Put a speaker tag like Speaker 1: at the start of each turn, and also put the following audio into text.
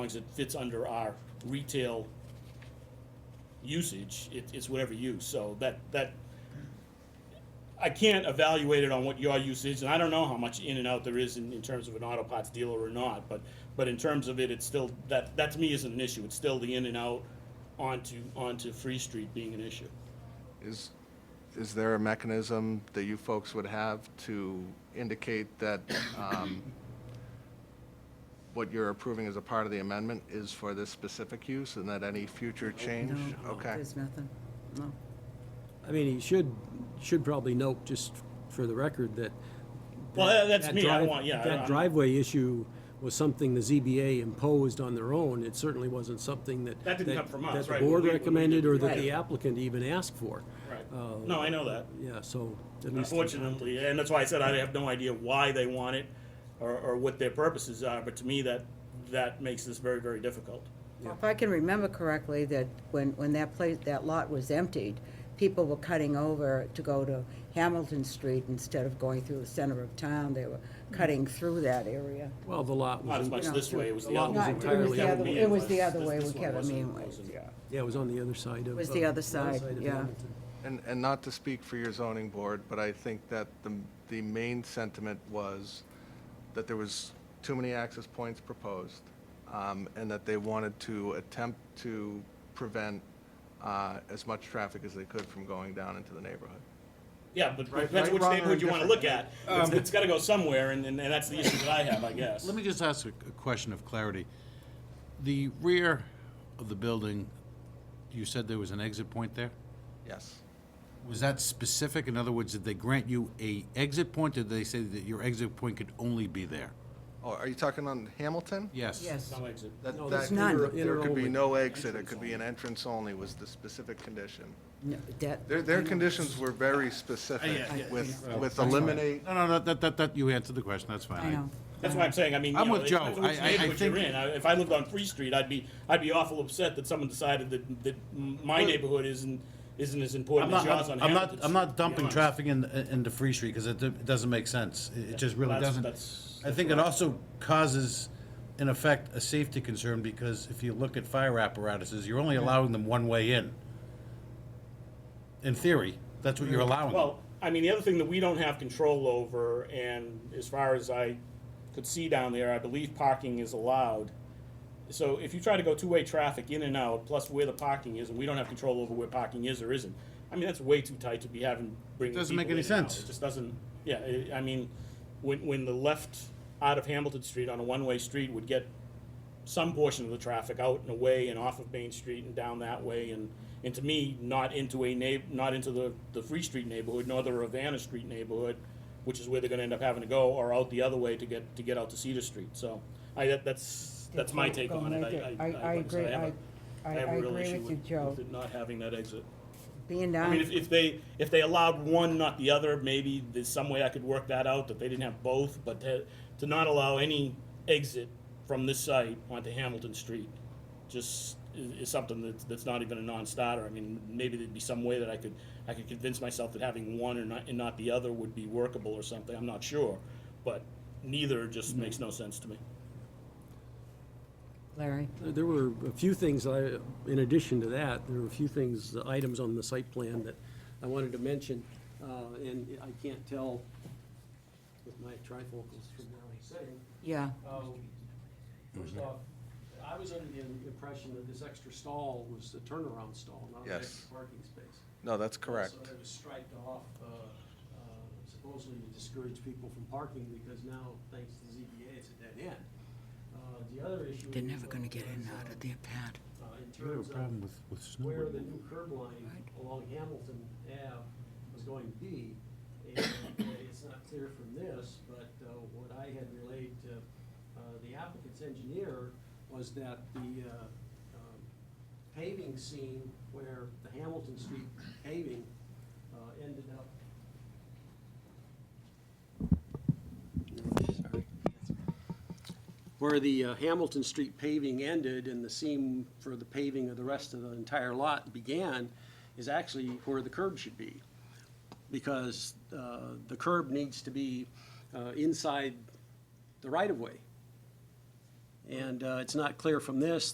Speaker 1: long as it fits under our retail usage, it, it's whatever use, so that, that, I can't evaluate it on what your use is, and I don't know how much in and out there is in, in terms of an auto parts dealer or not, but, but in terms of it, it's still, that, that to me isn't an issue, it's still the in and out onto, onto Free Street being an issue.
Speaker 2: Is, is there a mechanism that you folks would have to indicate that um, what you're approving as a part of the amendment is for this specific use and that any future change?
Speaker 3: No,
Speaker 2: Okay,
Speaker 3: There's nothing, no.
Speaker 4: I mean, he should, should probably note, just for the record, that.
Speaker 1: Well, that- that's
Speaker 4: that
Speaker 1: me. I
Speaker 4: drive-
Speaker 1: want- yeah, I-
Speaker 4: That
Speaker 1: I'm-
Speaker 4: driveway issue was something the ZBA imposed on their own. It certainly wasn't something that.
Speaker 1: That didn't come from us,
Speaker 4: That
Speaker 1: right,
Speaker 4: the
Speaker 1: when
Speaker 4: board
Speaker 1: we- when we
Speaker 4: recommended
Speaker 1: did-
Speaker 4: or that
Speaker 3: Right.
Speaker 4: the applicant even asked for. Uh,
Speaker 1: Right, no, I know that.
Speaker 4: Yeah, so. at least-
Speaker 1: Unfortunately, and that's why I said I have no idea why they want it or, or what their purposes are, but to me, that, that makes this very, very difficult.
Speaker 3: If I can remember correctly, that when, when that place, that lot was emptied, people were cutting over to go to Hamilton Street instead of going through the center of town. They were cutting through that area.
Speaker 4: Well, the lot
Speaker 1: Not as
Speaker 4: was,
Speaker 1: much this way, it was the
Speaker 4: Lot
Speaker 1: other
Speaker 4: was
Speaker 1: way.
Speaker 3: Not, it was
Speaker 4: entirely
Speaker 3: the other,
Speaker 4: empty.
Speaker 3: it was the other
Speaker 1: This-
Speaker 3: way
Speaker 1: this
Speaker 3: with
Speaker 1: one
Speaker 3: Kevin
Speaker 1: wasn't
Speaker 3: Meanway,
Speaker 1: closing.
Speaker 3: yeah.
Speaker 4: yeah, it was on the other side of.
Speaker 3: Was
Speaker 4: uh,
Speaker 3: the other side,
Speaker 4: of
Speaker 3: yeah.
Speaker 4: Hamilton.
Speaker 2: and, and not to speak for your zoning board, but I think that the, the main sentiment was that there was too many access points proposed um, and that they wanted to attempt to prevent uh, as much traffic as they could from going down into the neighborhood.
Speaker 1: Yeah, but
Speaker 2: Right,
Speaker 1: depends
Speaker 2: right,
Speaker 1: which
Speaker 2: wrong, or
Speaker 1: neighborhood you wanna
Speaker 2: indifferent.
Speaker 1: look at. It's, it's gotta go somewhere, and, and and that's the issue that I have, I guess.
Speaker 5: Um, Let me just ask a a question of clarity. The rear of the building, you said there was an exit point there?
Speaker 2: Yes.
Speaker 5: Was that specific? In other words, did they grant you a exit point, or did they say that your exit point could only be there?
Speaker 2: Oh, are you talking on Hamilton?
Speaker 5: Yes.
Speaker 3: Yes,
Speaker 1: No exit.
Speaker 2: That,
Speaker 4: No,
Speaker 2: that,
Speaker 4: there's
Speaker 3: none.
Speaker 2: there- there could be
Speaker 4: Inter-only.
Speaker 2: no exit, it could be an entrance only was the specific condition.
Speaker 3: No, that.
Speaker 2: Their, their conditions were very specific
Speaker 5: yeah, yeah.
Speaker 2: with, with eliminate,
Speaker 5: No, no, no, that, that, that, you answered the question, that's fine.
Speaker 3: I know.
Speaker 1: That's why I'm saying, I mean, you
Speaker 5: I'm
Speaker 1: know,
Speaker 5: with
Speaker 1: it
Speaker 5: Joe.
Speaker 1: depends on which
Speaker 5: I- I- I
Speaker 1: neighborhood you're
Speaker 5: think-
Speaker 1: in. I- If I lived on Free Street, I'd be, I'd be awful upset that someone decided that, that my neighborhood isn't, isn't as
Speaker 5: I'm
Speaker 1: important as
Speaker 5: not,
Speaker 1: yours on Hamilton.
Speaker 5: I'm not, I'm
Speaker 1: Street, to
Speaker 5: not
Speaker 1: be
Speaker 5: dumping
Speaker 1: honest.
Speaker 5: traffic in, into Free Street, because it, do- it doesn't make sense. It- It just really
Speaker 1: That's-
Speaker 5: doesn't.
Speaker 1: that's-
Speaker 5: I think it also causes, in effect, a safety concern, because if you look at fire apparatuses, you're only allowing them one way in. In theory, that's what you're allowing. them.
Speaker 1: Well, I mean, the other thing that we don't have control over, and as far as I could see down there, I believe parking is allowed. So if you try to go two-way traffic in and out, plus where the parking is, and we don't have control over where parking is or isn't, I mean, that's way too tight to be having, bringing
Speaker 5: Doesn't make
Speaker 1: people
Speaker 5: any
Speaker 1: in and out.
Speaker 5: sense.
Speaker 1: It just doesn't, yeah, I- I mean, when, when the left out of Hamilton Street on a one-way street would get some portion of the traffic out and away and off of Main Street and down that way and, and to me, not into a neigh, not into the, the Free Street neighborhood, nor the Ravenna Street neighborhood, which is where they're gonna end up having to go, or out the other way to get, to get out to Cedar Street, so, I, that, that's, that's my take on it. I- I-
Speaker 6: I
Speaker 1: like said,
Speaker 6: agree,
Speaker 1: have
Speaker 6: I,
Speaker 1: a-
Speaker 6: I, I
Speaker 1: have a real
Speaker 6: agree
Speaker 1: issue
Speaker 6: with you, Joe.
Speaker 1: with it Not having that exit.
Speaker 3: Being
Speaker 1: I mean, if,
Speaker 3: down,
Speaker 1: if they, if they allowed one, not the other, maybe there's some way I could work that out, that they didn't have both, but to, to not allow any exit from this site onto Hamilton Street, just is, is something that's, that's not even a non-starter. I mean, maybe there'd be some way that I could, I could convince myself that having one and not, and not the other would be workable or something, I'm not sure. But neither just makes no sense to me.
Speaker 3: Larry.
Speaker 4: There were a few things, I, in addition to that, there were a few things, items on the site plan that I wanted to mention, uh, and I can't tell with my trifocals from where I'm sitting.
Speaker 3: Yeah,
Speaker 4: Um, First off, I was under the impression that this extra stall was a turnaround stall, not an
Speaker 2: Yes.
Speaker 4: extra parking space.
Speaker 2: no, that's correct.
Speaker 4: So it was striped off, uh, uh, supposedly to discourage people from parking, because now, thanks to ZBA, it's a dead end. Uh, The other issue.
Speaker 3: they're
Speaker 4: is,
Speaker 3: never gonna get in and
Speaker 4: uh,
Speaker 3: out of their pad.
Speaker 4: uh, in
Speaker 5: You have a
Speaker 4: terms of
Speaker 5: problem with, with
Speaker 4: where
Speaker 5: snowboarding.
Speaker 4: the new curb line along Hamilton Ave was going to be. And uh, it's not clear from this, but uh, what I had relayed to uh, the applicant's engineer was that the uh, um, paving scene where the Hamilton Street paving uh, ended up. Where the uh, Hamilton Street paving ended and the seam for the paving of the rest of the entire lot began is actually where the curb should be. Because uh, the curb needs to be uh, inside the right-of-way. And uh, it's not clear from this